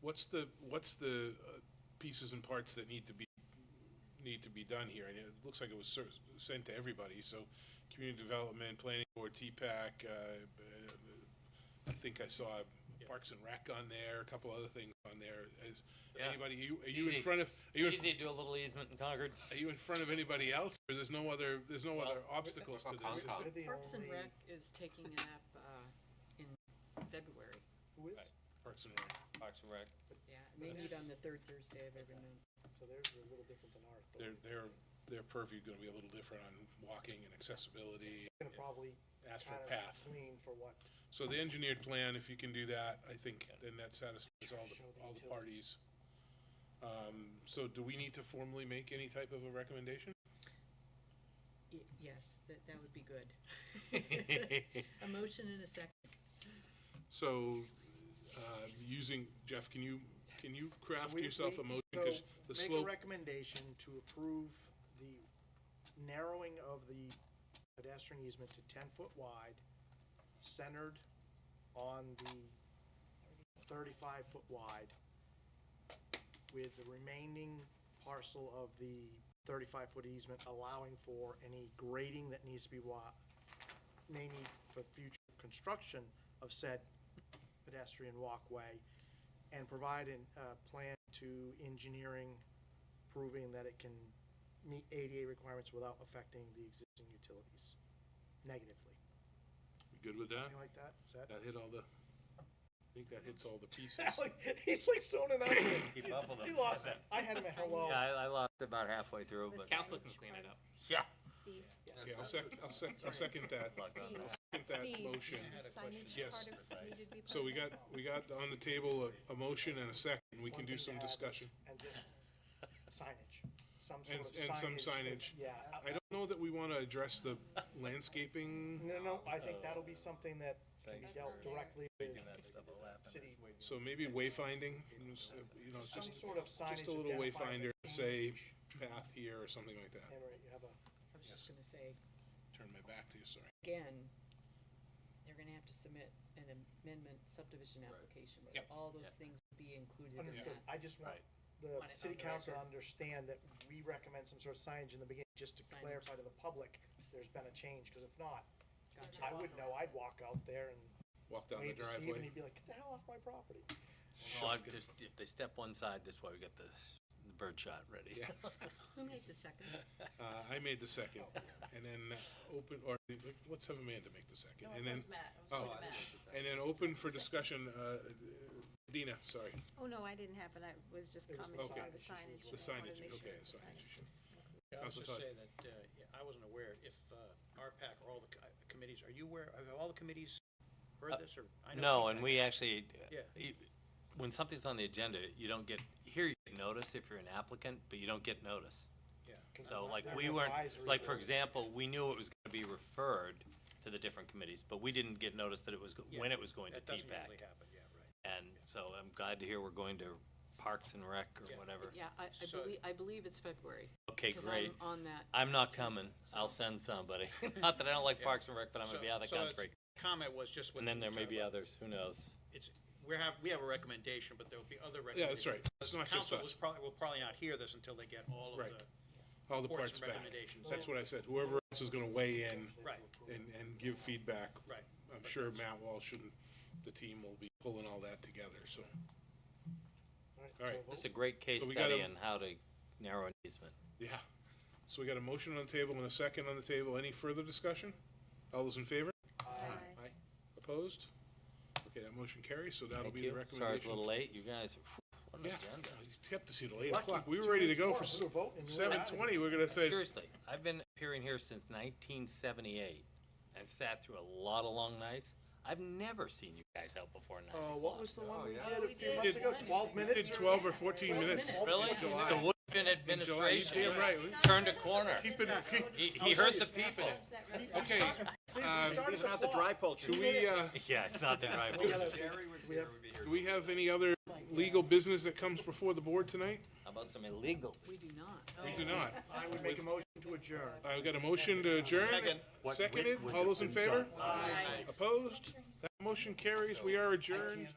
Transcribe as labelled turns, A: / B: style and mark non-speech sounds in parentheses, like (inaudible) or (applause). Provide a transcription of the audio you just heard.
A: what's the, what's the uh, pieces and parts that need to be, need to be done here? And it looks like it was ser- sent to everybody, so community development, planning board, TPAC, uh, uh, I think I saw Parks and Rec on there, a couple other things on there. Is
B: Yeah.
A: anybody, are you, are you
B: Easy.
A: in front of, are you, in-
B: It's easy to do a little easement in Concord.
A: are you in front of anybody else? Or there's no other, there's no other obstacles to this? is there?
C: We're the
D: Parks and
C: only-
D: Rec is taking it up uh, in February.
C: Who is?
A: Right. Parks and Rec.
B: Parks and Rec.
D: Yeah, they
C: That's
D: meet on
C: just-
D: the third Thursday of every month.
C: So theirs are a little different than ours. but
A: Their,
C: we're
A: their, their purview gonna be a little different on walking and accessibility,
C: Gonna probably
A: asphalt
C: kind of
A: path.
C: clean for what,
A: So the engineered plan, if you can do that, I think then that satisfies all
C: Show
A: the,
C: the
A: all the parties.
C: utilities.
A: Um, so do we need to formally make any type of a recommendation?
D: Y- Yes, that, that would be
E: (laughs)
D: good. A motion in a second.
A: So, uh, using, Jeff, can you, can you craft
C: we-
A: yourself
C: we-
A: a motion?
C: so
A: Because the
C: make a
A: slope,
C: recommendation to approve the narrowing of the pedestrian easement to ten foot wide, centered on the thirty-five foot wide, with the remaining parcel of the thirty-five foot easement allowing for any grading that needs to be wa, may need for future construction of said pedestrian walkway, and provide a plan to engineering proving that it can meet ADA requirements without affecting the existing utilities negatively.
A: good with that?
C: Anything like that? Is that?
A: That hit all the, I think that hits all the
C: (laughs)
A: pieces.
B: (laughs)
C: Alec, He's like zoning out.
B: Keep up with
C: He
B: him.
C: lost it. I had him at hello.
E: Yeah, I, I lost about halfway through,
F: The
E: but
B: Council can
F: Council can
B: clean it up.
E: yeah.
F: Steve,
A: Okay, I'll sec, I'll sec, I'll second that, I'll
F: Steve,
A: second that
F: Steve.
A: motion.
F: the signage
A: Yes.
F: part of, needed to be part
A: So
F: of
A: we
F: that?
A: got, we got on the table a, a motion and a second, we can do
C: One thing to
A: some
C: add is-
A: discussion.
C: And just signage, some sort
A: And-
C: of signage.
A: and some
C: that-
A: signage.
C: Yeah. I-
A: I don't know that we wanna address the landscaping,
C: No, no, I
A: Uh,
C: think that'll be something that can be dealt directly with city.
A: so maybe wayfinding, you know, s- uh, you know,
C: Some
A: just,
C: sort of signage.
A: just a little
C: identifying
A: wayfinder,
C: the
A: say path here or something like that.
C: And right, you have a,
D: I was just gonna say,
A: Turn my back to you, sorry.
D: again, they're gonna have to submit an amendment subdivision application. So
A: Yep.
D: all those things will be included in
C: understood.
D: that.
C: I just want
E: Right.
C: the
D: Want it
C: city
D: on the
C: council to
D: record.
C: understand that we recommend some sort of signage in the beginning, just to
D: Signage.
C: clarify to the public, there's been a change, because if not,
D: Gotcha.
C: I would know, I'd walk out there and
A: Walk down the
C: wave to Steve, and
A: driveway.
C: he'd be like, get the hell off my property.
E: Well, I just if they step one side this way, we got the, the bird shot ready.
A: Yeah.
D: Who made the second?
A: Uh, I made the second, and then uh, open, or, let's have Amanda make the second, and then, oh, and then open for discussion, uh, Dina, sorry,
F: Oh, no, I didn't have it, I was just
C: It was the
F: commenting on the
C: signage
F: signage.
C: issues
A: the
F: I just wanted to
A: signage,
F: make sure
A: okay,
F: it was
A: signage issue.
G: Yeah, I was
A: Council
G: just
A: Todd.
G: say that, uh, yeah, I wasn't aware if uh, RPAC or all the co- uh, committees, are you aware, have all the committees
E: Uh,
G: heard this or? I know
E: No, and
G: TPAC
E: we actually,
G: Yeah.
E: e- when something's on the agenda, you don't get here. You get notice if you're an applicant, but you don't get notice.
C: 'Cause
E: So
C: I'm
E: like
C: not-
E: we
C: I'm
E: weren't,
C: advisory
E: like for
C: board.
E: example, we knew it was going to be referred to the different committees, but we didn't get notice that it was go-
G: Yeah,
E: when it was going to
G: That doesn't
E: TPAC.
G: usually happen, yeah, right.
E: And so I'm glad to hear we're going to Parks and Rec or
G: Yeah.
E: whatever.
D: Yeah, I, I
G: So-
D: believe, I believe it's February.
E: Okay,
D: Because
E: great.
D: I'm on that
E: I'm not coming. I'll send somebody. (laughs) not that I don't like
G: Yeah.
E: Parks and Rec, but I'm
G: So-
E: gonna be out of the
G: so it's-
E: country.
G: Comment was just what.
E: And then
G: you
E: there may
G: talked
E: be
G: about.
E: others. Who knows?
G: It's, we have, we have a recommendation, but there'll be other
A: Yeah, that's
G: recommendations.
A: right, it's
G: The
A: not just
G: Council was
A: us,
G: probably, will probably not hear this until they get all of
A: Right.
G: the
A: all the parts
G: reports and
A: back.
G: recommendations.
A: That's what I said, whoever else is gonna weigh in
G: Right.
A: and, and give feedback.
G: Right.
A: I'm sure Matt Walsh and the team will be pulling all that together, so. All right.
C: so
E: This is
C: vote.
E: a great case
A: So we
E: study
A: gotta-
E: on how to narrow an easement.
A: Yeah. So we got a motion on the table and a second on the table. Any further discussion? All those in favor?
F: Aye.
A: Opposed? Okay, that motion carries, so that'll
E: Thank
A: be the
E: you.
A: recommendation.
E: Sorry it's a little late. You guys, what an
A: Yeah.
E: agenda.
A: You kept us here till eight
C: Lucky,
A: o'clock. We
C: two
A: were ready to
C: minutes
A: go
C: more,
A: for
C: we were voting and you were
A: seven
C: out of
A: twenty. We're gonna say,
E: Seriously, I've been appearing here since 1978 and sat through a lot of long nights. I've never seen you guys out before nine
C: Uh,
A: Oh,
E: o'clock.
C: what was the one we
F: yeah.
C: did a
F: Oh, we
C: few
F: did
C: months ago,
F: one.
C: twelve
A: we
C: minutes?
A: did
C: or-
A: twelve or fourteen
C: Twelve
A: minutes.
C: minutes.
E: Oh, Really?
A: In
E: The
A: July.
E: Woodfin
A: In July, you
E: administration
A: damn right. Oh,
E: turned a corner.
A: Keep it, keep-
E: He, he heard the people.
A: okay.
C: Steve, we
A: Um,
C: started the clock.
A: Do we, uh,
E: (laughs) Yeah, it's
A: (laughs)
E: not
G: (laughs)
E: that I
C: We
E: was.
C: gotta- we have-
A: do we have any other legal business that comes before the board tonight?
E: How about some illegal?
D: We do not.
A: We
D: Oh.
A: do not.
C: I would make a motion to adjourn.
A: I've got a motion to adjourn.
G: Second.
A: Seconded. All those in favor?
D: Aye.
A: Opposed? That motion carries. We are adjourned.